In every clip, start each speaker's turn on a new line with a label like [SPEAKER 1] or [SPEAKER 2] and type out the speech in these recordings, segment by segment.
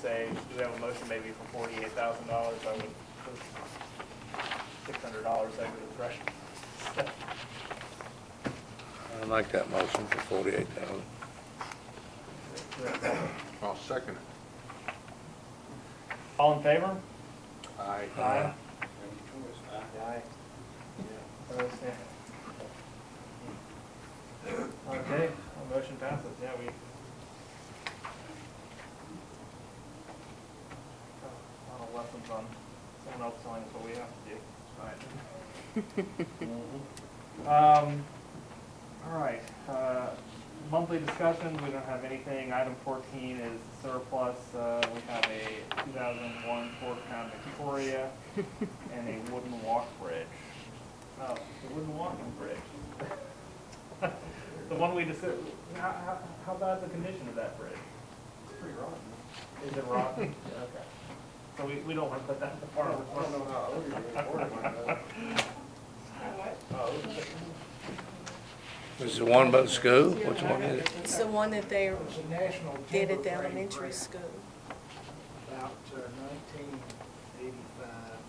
[SPEAKER 1] say, do we have a motion maybe for forty-eight thousand dollars, I would, six hundred dollars over the threshold.
[SPEAKER 2] I like that motion for forty-eight thousand.
[SPEAKER 3] I'll second it.
[SPEAKER 1] All in favor?
[SPEAKER 3] Aye.
[SPEAKER 1] Aye. Opposed, yeah. Okay, well, motion passes, yeah, we. A lot of lessons on someone else telling us what we have to do, it's fine. Um, all right, uh, monthly discussions, we don't have anything. Item fourteen is surplus, uh, we have a two thousand one Ford Crown Victoria and a wooden walk bridge. Oh, the wooden walking bridge. The one we just, how, how, how bad the condition of that bridge?
[SPEAKER 3] It's pretty rotten.
[SPEAKER 1] Is it rotten? Yeah, Okay. So we, we don't want to put that in the
[SPEAKER 3] I
[SPEAKER 1] farm.
[SPEAKER 3] don't know how old you are, or what.
[SPEAKER 1] Oh,
[SPEAKER 2] Is the one about the school? Which one is it?
[SPEAKER 4] It's the one that they
[SPEAKER 5] It was a national
[SPEAKER 4] did
[SPEAKER 5] timber
[SPEAKER 4] at the
[SPEAKER 5] frame
[SPEAKER 4] elementary
[SPEAKER 5] grant
[SPEAKER 4] school.
[SPEAKER 5] About uh, nineteen eighty-five.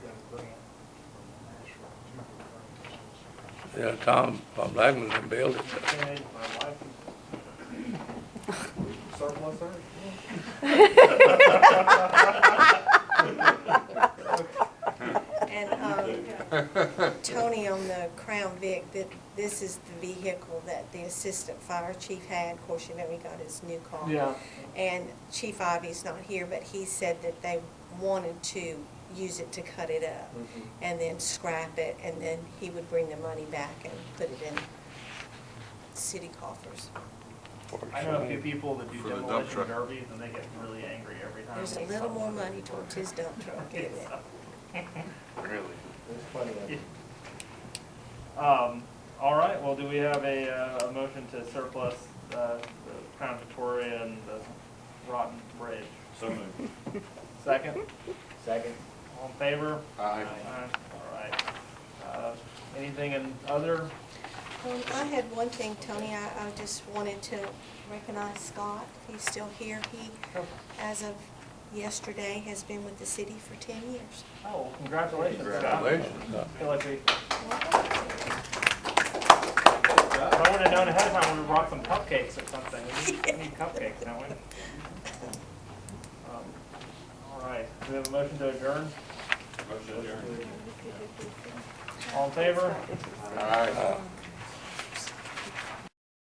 [SPEAKER 5] Got a grant from the National Timber Frame Association.
[SPEAKER 2] Yeah, Tom, Tom Blackman's gonna build it.
[SPEAKER 1] And my wife is- Surplus her?
[SPEAKER 4] And um, Tony on the Crown Vic, that this is the vehicle that the assistant fire chief had. Of course, you know, he got his new car. And Chief Ivy's not here, but he said that they wanted to use it to cut it up and then scrap it, and then he would bring the money back and put it in city coffers.
[SPEAKER 1] I know a few people that do
[SPEAKER 3] For the dump
[SPEAKER 1] demolition
[SPEAKER 3] truck.
[SPEAKER 1] derbies and they get really angry every time.
[SPEAKER 4] There's a little more money towards his dump truck, isn't it?
[SPEAKER 3] Really?
[SPEAKER 1] Um, all right, well, do we have a, uh, a motion to surplus, uh, the Crown Victoria and the rotten bridge? So moved. Second? Second. All in favor?
[SPEAKER 3] Aye.
[SPEAKER 1] All right. Uh, anything in other?
[SPEAKER 4] Um, I had one thing, Tony, I, I just wanted to recognize Scott, he's still here, he, as of yesterday, has been with the city for ten years.
[SPEAKER 1] Oh, congratulations, Scott.
[SPEAKER 3] Congratulations.
[SPEAKER 1] Feel like we, if I would've known ahead of time, we brought some cupcakes or something. We need- We need cupcakes, don't we? Um, All right, do we have a motion to adjourn? All in favor?
[SPEAKER 3] Aye.